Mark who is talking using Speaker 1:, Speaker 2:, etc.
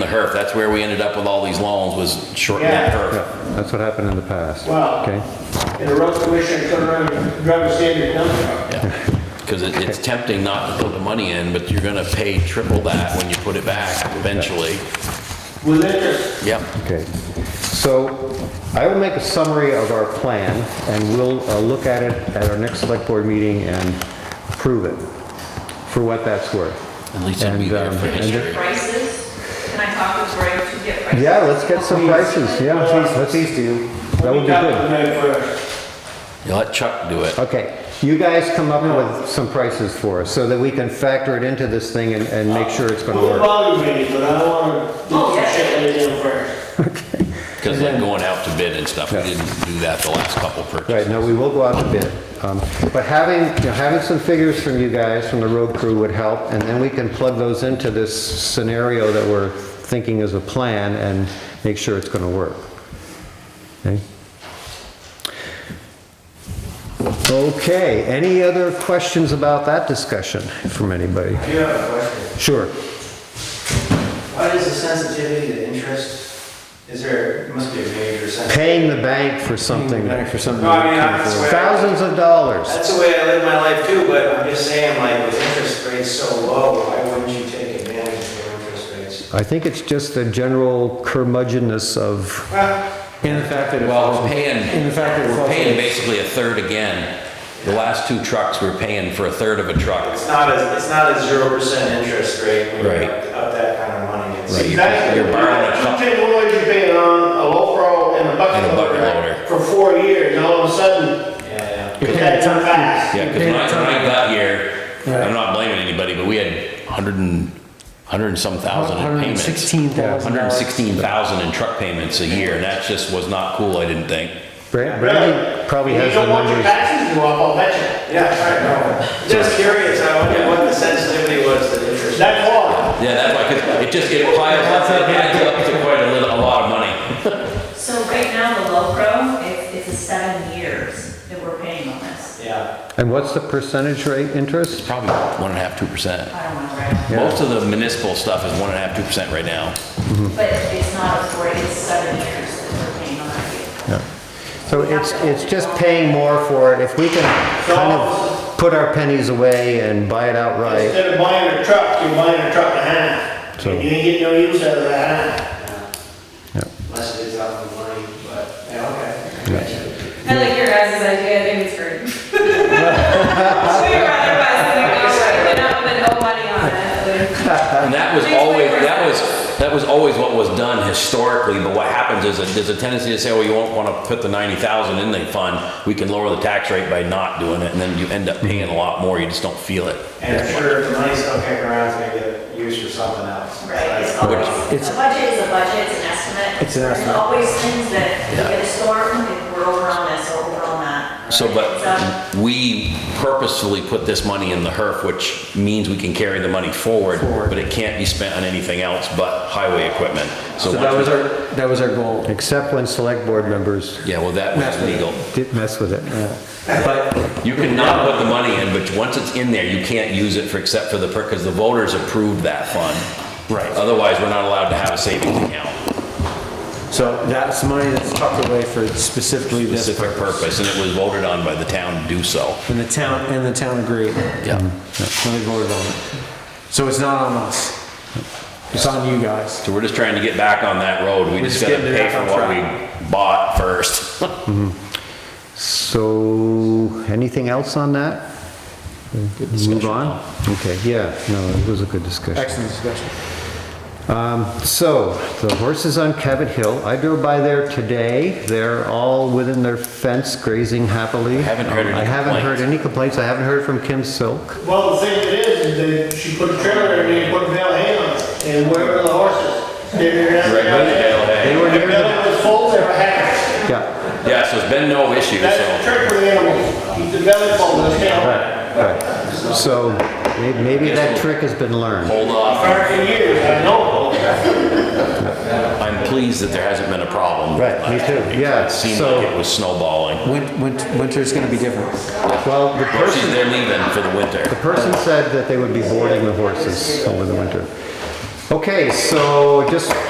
Speaker 1: the HERF. That's where we ended up with all these loans was shortening that
Speaker 2: Yeah.
Speaker 1: HERF.
Speaker 3: Yeah, that's what happened in the past.
Speaker 2: Well-
Speaker 3: Okay,
Speaker 2: And the road commissioner turned around and drove us in and dumped it.
Speaker 1: Because it, it's tempting not to put the money in, but you're gonna pay triple that when you put it back eventually.
Speaker 2: with interest.
Speaker 1: Yep.
Speaker 3: okay. So I will make a summary of our plan, and we'll uh, look at it at our next select board meeting and prove it for what that's worth.
Speaker 1: At least it'll be
Speaker 3: And,
Speaker 1: there
Speaker 3: um,
Speaker 1: for
Speaker 3: and
Speaker 1: history.
Speaker 3: ju-
Speaker 4: prices? Can I talk with Greg to get prices?
Speaker 3: Yeah, let's get some prices, yeah. let's-
Speaker 5: Please do.
Speaker 3: That would
Speaker 2: We
Speaker 3: be
Speaker 2: got
Speaker 3: good.
Speaker 2: the money first.
Speaker 1: You let Chuck do it.
Speaker 3: Okay, you guys come up with some prices for us, so that we can factor it into this thing and, and make sure it's gonna
Speaker 2: We'll
Speaker 3: work.
Speaker 2: volume it, but I want to do
Speaker 4: Oh,
Speaker 2: some
Speaker 4: yeah.
Speaker 2: shit laid down first.
Speaker 1: Because like going out to bid and stuff, we
Speaker 3: Yeah.
Speaker 1: didn't do that the last couple purchases.
Speaker 3: Right, no, we will go out to bid. Um, But having, you know, having some figures from you guys, from the road crew would help, and then we can plug those into this scenario that we're thinking as a plan and make sure it's gonna work. Okay? Okay, any other questions about that discussion from anybody?
Speaker 5: I do have a question.
Speaker 3: Sure.
Speaker 5: What is the sensitivity to interest? Is there, there must be a major sensitivity.
Speaker 3: Paying the bank for something,
Speaker 5: for something.
Speaker 2: No, I mean, I swear.
Speaker 3: thousands of dollars.
Speaker 5: That's the way I live my life too, but I'm just saying, like, with interest rates so low, why wouldn't you take advantage of your interest rates?
Speaker 3: I think it's just a general curmudgeonness of
Speaker 6: And the fact that it
Speaker 1: Well, we're
Speaker 6: falls,
Speaker 1: paying,
Speaker 6: and the fact that it
Speaker 1: we're
Speaker 6: falls.
Speaker 1: paying basically a third again. The last two trucks, we're paying for a third of a truck.
Speaker 5: It's not a, it's not a zero percent interest rate when
Speaker 1: Right.
Speaker 5: you're up up that kind of money.
Speaker 1: Right,
Speaker 5: It's-
Speaker 1: you're you're borrowing a
Speaker 2: You
Speaker 1: truck.
Speaker 2: take one way you're paying on a low and a
Speaker 1: And
Speaker 2: bucket
Speaker 1: a bucket
Speaker 2: loader
Speaker 1: loader.
Speaker 2: for four years, and all of a sudden,
Speaker 5: Yeah, yeah.
Speaker 2: it had come back.
Speaker 1: Yeah, because when I when I got here, I'm not blaming anybody, but we had 100 and, 100 and some thousand in payments.
Speaker 6: 116,000.
Speaker 1: 116,000 in truck payments a year, and that just was not cool, I didn't think.
Speaker 3: Bra- Brandy probably
Speaker 2: You
Speaker 3: has the
Speaker 2: don't want your
Speaker 3: numbers.
Speaker 2: taxes to go up, I'll bet you.
Speaker 5: Yeah, I know. Just curious, I wonder what the sensitivity was to interest.
Speaker 2: That's hard.
Speaker 1: Yeah, that's why, 'cause it just, it piles up, it adds up to quite a little, a lot of money.
Speaker 4: So right now, the Lowbro, it's, it's a seven years that we're paying on this.
Speaker 5: Yeah.
Speaker 3: And what's the percentage rate interest?
Speaker 1: Probably one and a half, two percent.
Speaker 4: I don't want to write,
Speaker 3: Yeah.
Speaker 1: Most of the municipal stuff is one and a half, two percent right now.
Speaker 4: but it's not a four, it's seven years that we're paying on that vehicle.
Speaker 3: So it's, it's just paying more for it. If we can kind of put our pennies away and buy it outright.
Speaker 2: Instead of buying a truck, you're buying a truck and a half.
Speaker 3: So-
Speaker 2: And you ain't getting no use out of that.
Speaker 5: Unless it is out of the money, but, yeah, okay.
Speaker 7: I like your guys' idea, I think it's great. We were rather buy something outright than up and owe money on it.
Speaker 1: And that was always, that was, that was always what was done historically, but what happens is, that there's a tendency to say, well, you won't wanna put the ninety thousand in the fund, we can lower the tax rate by not doing it, and then you end up paying a lot more, you just don't feel it.
Speaker 5: And I'm sure if the money's still kicking around, it's gonna get used for something else.
Speaker 4: Right, it's
Speaker 5: Like,
Speaker 4: always,
Speaker 6: it's-
Speaker 4: a budget is a budget, it's an estimate.
Speaker 6: It's an estimate.
Speaker 4: There's always things that,
Speaker 1: Yeah.
Speaker 4: we get a storm, if we're over on this or over on that.
Speaker 1: So,
Speaker 4: So-
Speaker 1: but we purposefully put this money in the HERF, which means we can carry the money forward, but it can't be spent on anything else but highway equipment.
Speaker 6: So
Speaker 1: So
Speaker 6: that
Speaker 1: once,
Speaker 6: was our, that was our goal.
Speaker 3: Except when select board members
Speaker 1: yeah, well, that was legal.
Speaker 3: did mess with it.
Speaker 6: But
Speaker 1: You cannot put the money in, but once it's in there, you can't use it for, except for the, because the voters approved that fund.
Speaker 6: Right.
Speaker 1: Otherwise, we're not allowed to have a savings account,
Speaker 6: So that's money that's tucked away for specifically this
Speaker 1: specific purpose, and it was voted on by the town to do so.
Speaker 6: And the town, and the town agreed when
Speaker 1: Yeah.
Speaker 6: they voted on it. So it's not on us. It's on you guys.
Speaker 1: So we're just trying to get back on that road. We
Speaker 6: We're
Speaker 1: just
Speaker 6: just
Speaker 1: gotta
Speaker 6: getting
Speaker 1: pay
Speaker 6: back
Speaker 1: for
Speaker 6: on
Speaker 1: what
Speaker 6: track.
Speaker 1: we bought first.
Speaker 3: So, anything else on that? Move on? Okay, yeah, no, it was a good discussion.
Speaker 6: Excellent discussion.
Speaker 3: So, the horses on Cabot Hill, I drove by there today. They're all within their fence grazing happily. I
Speaker 1: haven't heard any
Speaker 3: I haven't heard
Speaker 1: complaints.
Speaker 3: any complaints. I haven't heard from Kim Silk.
Speaker 2: Well, the thing that is, is that she put a trailer in and put a bale of hay on it, and wherever the horses. They
Speaker 1: They
Speaker 3: were near
Speaker 2: If
Speaker 3: the-
Speaker 2: it was full, they were happy.
Speaker 3: Yeah,
Speaker 1: Yeah, so it's been no issue,
Speaker 2: That's the
Speaker 1: so.
Speaker 2: trick with animals, keep the belly full, let
Speaker 3: right. So, may- maybe that trick has been learned.
Speaker 1: Hold off.
Speaker 2: Hard for years, I know.
Speaker 1: I'm pleased that there hasn't been a problem.
Speaker 3: Right, me too. Yeah,
Speaker 1: It seemed
Speaker 3: so-
Speaker 1: like it was snowballing.
Speaker 6: Win- win- Winter's gonna be different.
Speaker 3: Well, the
Speaker 1: Well, she's,
Speaker 3: person,
Speaker 1: they're leaving for the winter.
Speaker 3: the person said that they would be boarding the horses over the winter. Okay, so just